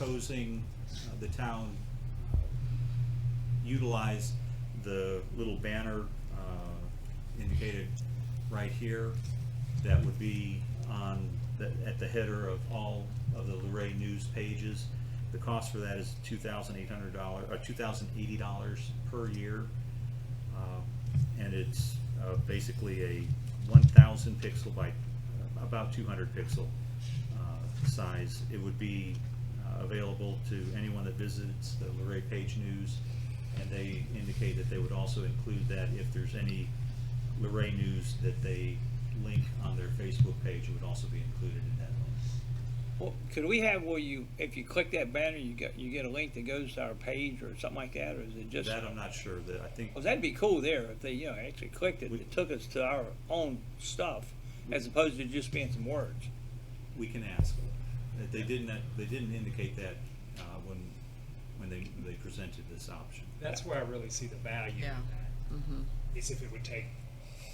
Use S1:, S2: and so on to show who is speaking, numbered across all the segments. S1: proposing uh, the town uh, utilize the little banner uh, indicated right here that would be on, the- at the header of all of the Luray News pages. The cost for that is $2,800, or $2,080 per year. Um, And it's uh, basically a 1,000 pixel by uh, about 200 pixel uh, size. It would be uh, available to anyone that visits the Luray Page News, and they indicate that they would also include that if there's any Luray News that they link on their Facebook page, it would also be included in that link.
S2: Well, could we have where you, if you click that banner, you get, you get a link that goes to our page or something like that, or is it just?
S1: That I'm not sure, that I think,
S2: Well, that'd be cool there if they, you know, actually clicked it,
S1: We-
S2: it took us to our own stuff as opposed to just being some words.
S1: we can ask. That They didn't, they didn't indicate that uh, when, when they, they presented this option.
S3: That's where I really see the value
S4: Yeah.
S3: in that, is if it would take,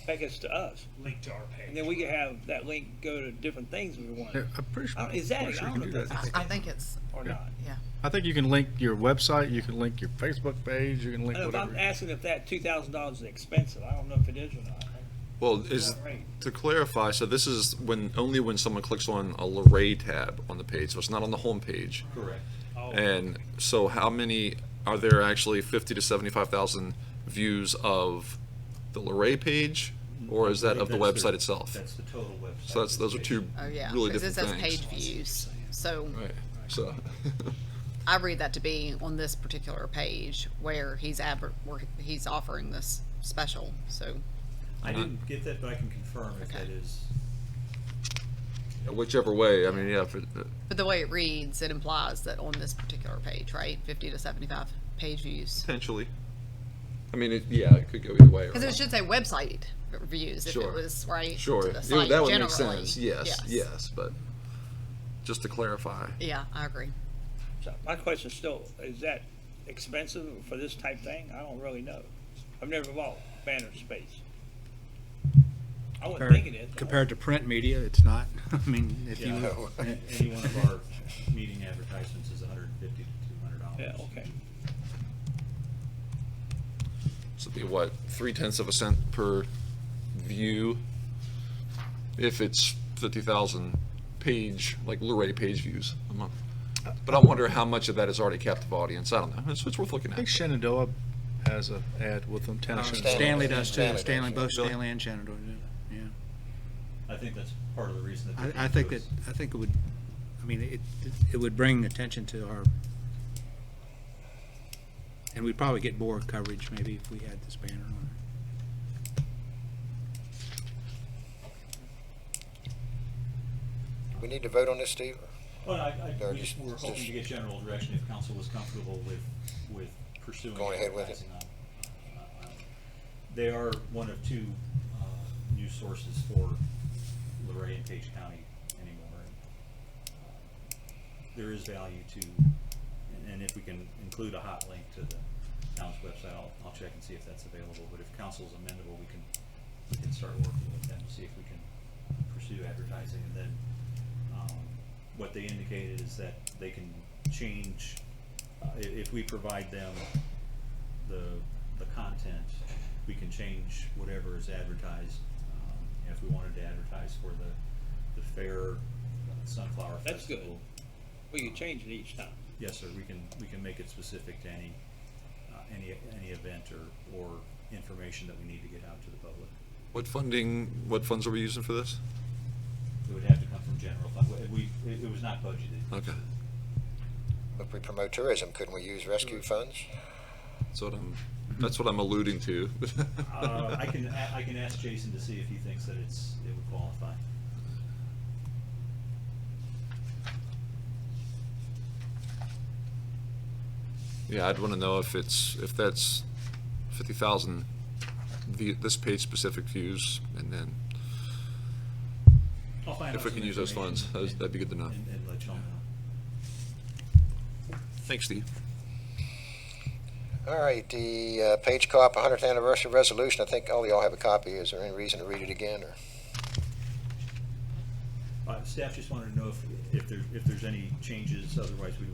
S2: Take us to us,
S3: link to our
S2: and
S3: page.
S2: then we could have that link go to different things we want,
S5: Yeah, I'm pretty sure.
S2: Uh, is that-
S5: pretty sure
S2: I
S5: you
S2: don't
S5: can
S2: know
S5: do
S2: if
S5: that.
S4: I, I think it's,
S2: or not.
S4: yeah.
S5: I think you can link your website, you can link your Facebook page, you can
S2: I
S5: link
S2: don't know, if I'm
S5: whatever.
S2: asking if that two thousand dollars is expensive, I don't know if it is or not.
S6: Well, is,
S2: Right.
S6: to clarify, so this is when, only when someone clicks on a Luray tab on the page, so it's not on the home page.
S1: Correct.
S6: And so how many, are there actually fifty to seventy-five thousand views of the Luray page? Or is that of the
S1: That's
S6: website itself?
S1: That's the total website.
S6: So that's, those are two
S4: Oh, yeah.
S6: really
S4: Because it
S6: different
S4: says page
S6: things.
S4: views. So
S6: Right, so,
S4: I read that to be on this particular page where he's adver- where he's offering this special. So
S1: I didn't get that, but I can confirm if that
S4: Okay.
S1: is,
S6: whichever way, I mean, yeah, if it-
S4: but the way it reads, it implies that on this particular page, right? Fifty to seventy five page views.
S6: potentially. I mean, it, yeah, it could go either way.
S4: Because it should say website views if
S6: Sure.
S4: it was right.
S6: Sure,
S4: To
S6: Yeah,
S4: the site
S6: that would
S4: generally.
S6: make sense, yes,
S4: yes.
S6: yes, but just to clarify.
S4: Yeah, I agree.
S2: So my question still, is that expensive for this type thing? I don't really know. I've never bought banner space. I wouldn't think it is.
S7: Compared to print media, it's not. I mean, if you,
S1: yeah, any one of our meeting advertisements is hundred and fifty to two hundred dollars.
S2: Yeah, okay.
S6: So it'd be what, three tenths of a cent per view? If it's fifty thousand page, like Luray page views a month. But I wonder how much of that is already captive audience. I don't know. It's, it's worth looking
S5: I
S6: at.
S5: think Shenandoah has a ad with them, town of Shenandoah.
S7: Um, Stanley does too,
S8: Stanley
S7: Stanley,
S8: does,
S7: both Stanley and Shannon do, yeah.
S1: I think that's part of the reason that. they
S7: I, I
S1: didn't
S7: think
S1: do
S7: that,
S1: it.
S7: I think it would, I mean, it, it would bring attention to our, and we'd probably get more coverage maybe if we had this banner on it.
S8: We need to vote on this, Steve?
S1: Well, I, I,
S8: No,
S1: we
S8: just-
S1: were hoping
S8: just-
S1: to get general direction if council was comfortable with, with pursuing.
S8: Going ahead with it.
S1: advertising on- on- on- They are one of two, uh, news sources for Luray and Page County anymore. Uh, There is value to, and- and if we can include a hot link to the town's website, I'll, I'll check and see if that's available. But if council's amendable, we can, we can start working with them to see if we can pursue advertising and then um, what they indicated is that they can change, uh, i- if we provide them the, the content, we can change whatever is advertised. Um, If we wanted to advertise for the, the fair sunflower festival.
S2: That's good. We could change it each time.
S1: Yes, sir, we can, we can make it specific to any, uh, any, any event or, or information that we need to get out to the public.
S6: What funding, what funds are we using for this?
S1: It would have to come from general fund, we, it it was not budgeted.
S6: Okay.
S8: If we promote tourism, couldn't we use rescue funds?
S6: That's what I'm, that's what I'm alluding to.
S1: Uh, I can, a- I can ask Jason to see if he thinks that it's, it would qualify.
S6: Yeah, I'd want to know if it's, if that's fifty thousand, the, this page specific views, and then
S1: I'll find
S6: If
S1: out
S6: we
S1: some
S6: can use those
S1: information
S6: funds, those-
S1: and-
S6: that'd be good to know.
S1: And, and let y'all know.
S6: Thanks, Steve.
S8: All right, the uh, Page Co-op 100th Anniversary Resolution, I think all y'all have a copy. Is there any reason to read it again, or?
S1: Uh, staff just wanted to know if, if there, if there's any changes, otherwise we